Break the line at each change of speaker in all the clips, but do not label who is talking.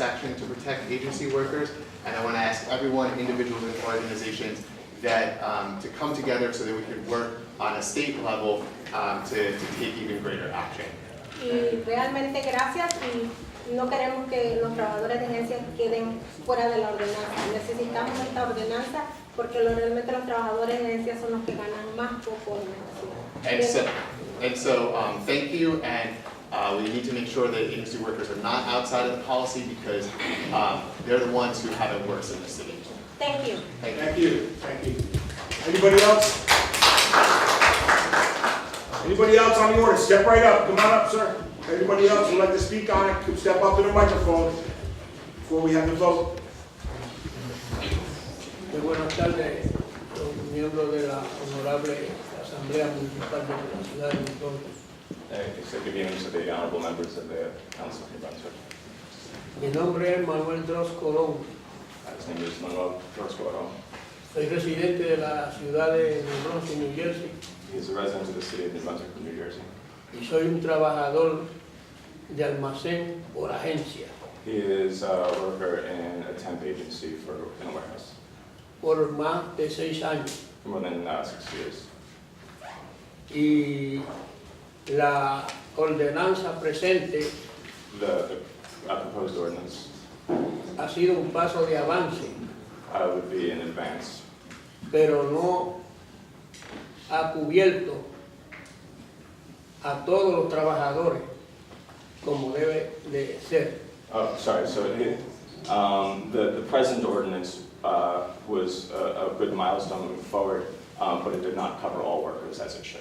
action to protect agency workers, and I want to ask everyone, individuals and organizations, that, um, to come together so that we could work on a state level um, to to take even greater action.
Y realmente gracias y no queremos que los trabajadores de agencias queden fuera de la ordenanza. Necesitamos esta ordenanza porque lo- realmente los trabajadores de agencias son los que ganan más conforme a la
And
ciudad.
so, and so, um, thank you, and, uh, we need to make sure that agency workers are not outside of the policy because, um, they're the ones who have it worse in the city.
Thank you.
Thank you.
Thank you, thank you. Anybody else? Anybody else on the order, step right up, come on up, sir. Anybody else who'd like to speak on it, could step up to the microphone before we have the vote.
Muy Eh, buenas tardes, los miembros de la Honorable Asamblea Municipal de la Ciudad de Rincón.
Executive Units of the Honorable Members of the Council of New Brunswick.
Mi nombre es Manuel Droz Colón,
His name is Manuel Torquato.
soy residente de la ciudad de New Brunswick, New Jersey,
He is a resident of the city of New Brunswick, New Jersey.
y soy un trabajador de almacén por agencia,
He is a worker in a temp agency for, in a warehouse,
por más de seis años.
for more than uh, six years.
Y la ordenanza presente
The the, uh, proposed ordinance
ha sido un paso de avance,
uh, would be in advance,
pero no ha cubierto a todos los trabajadores como debe de ser.
Oh, sorry, so it, um, the, the present ordinance, uh, was a, a good milestone moving forward, um, but it did not cover all workers as it should.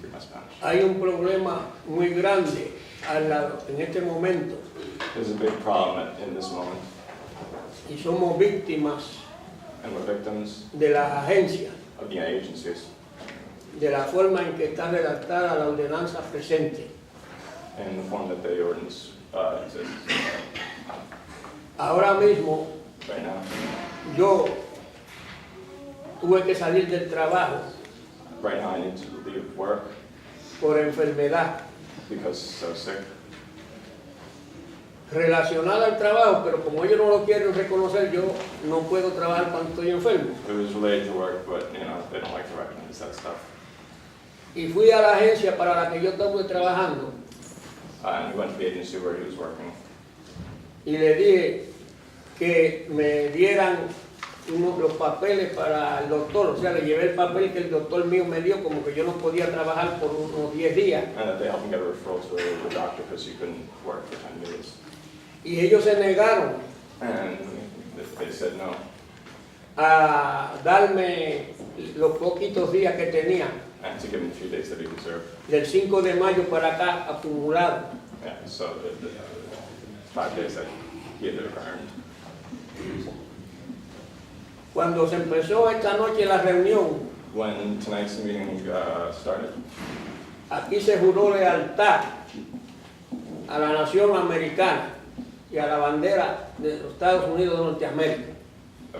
Free my Spanish.
Hay un problema muy grande al lado- en este momento
There's a big problem at- in this moment,
y somos víctimas
and we're victims
de las agencias,
of the agencies
de la forma en que está redactada la ordenanza presente.
in the form that the ordinance uh, exists
Ahora mismo
right now.
yo tuve que salir del trabajo
Right now, I need to leave work
por enfermedad
because so sick,
relacionada al trabajo, pero como ellos no lo quieren reconocer, yo no puedo trabajar cuando estoy enfermo.
it was related to work, but, you know, they don't like to recognize that stuff.
Y fui a la agencia para la que yo estuve trabajando
Uh, And we went to the agency where he was working,
y le dije que me dieran uno- los papeles para el doctor, o sea, le llevé el papel que el doctor mío me dio, como que yo no podía trabajar por unos 10 días.
and that they helped him get a referral to a local doctor because he couldn't work for 10 days.
Y ellos se negaron
And they- they said no,
a darme los poquitos días que tenía,
and to give him the few days that he deserved.
del 5 de mayo para acá acumulado.
Yeah, so the the five days that he had earned.
Cuando se empezó esta noche la reunión,
When tonight's meeting uh, started,
Aquí se juró lealtad a la nación americana y a la bandera de los Estados Unidos de Norteamérica.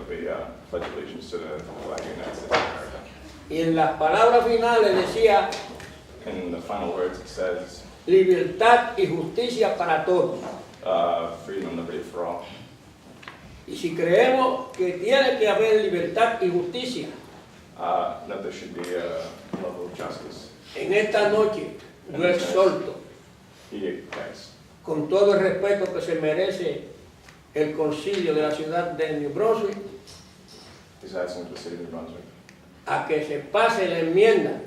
we uh, pledge allegiance to the flag of the United States of America.
Y en las palabras finales decía
In the final words, it says,
libertad y justicia para todos.
uh, freedom and liberty for all.
Y si creemos que tiene que haber libertad y justicia,
Uh, That there should be a level of justice.
en esta noche yo exhorto,
He expects,
con todo el respeto que se merece el concilio de la ciudad de New Brunswick,
he's asking the city of New Brunswick
a que se pase la enmienda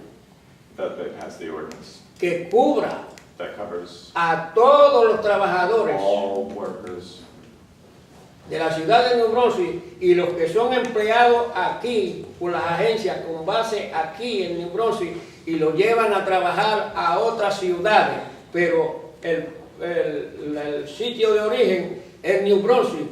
that it has the ordinance
que cubra
that covers
a todos los trabajadores
all workers
de la ciudad de New Brunswick y los que son empleados aquí por las agencias con base aquí en New Brunswick y los llevan a trabajar a otras ciudades, pero el, el- el sitio de origen es New Brunswick.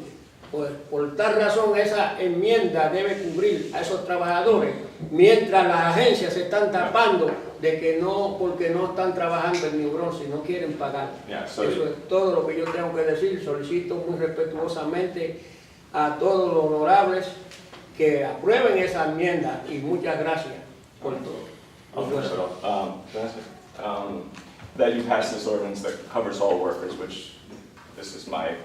Pues por tal razón esa enmienda debe cubrir a esos trabajadores, mientras las agencias se están tapando de que no, porque no están trabajando en New Brunswick, no quieren pagar.
Yeah, so-
Eso es todo lo que yo tengo que decir. Solicito muy respetuosamente a todos los honorables que aprueben esa enmienda y muchas gracias por
I'll finish it
todo.
off. Um, can I ask you, um, That you pass this ordinance that covers all workers, which this is my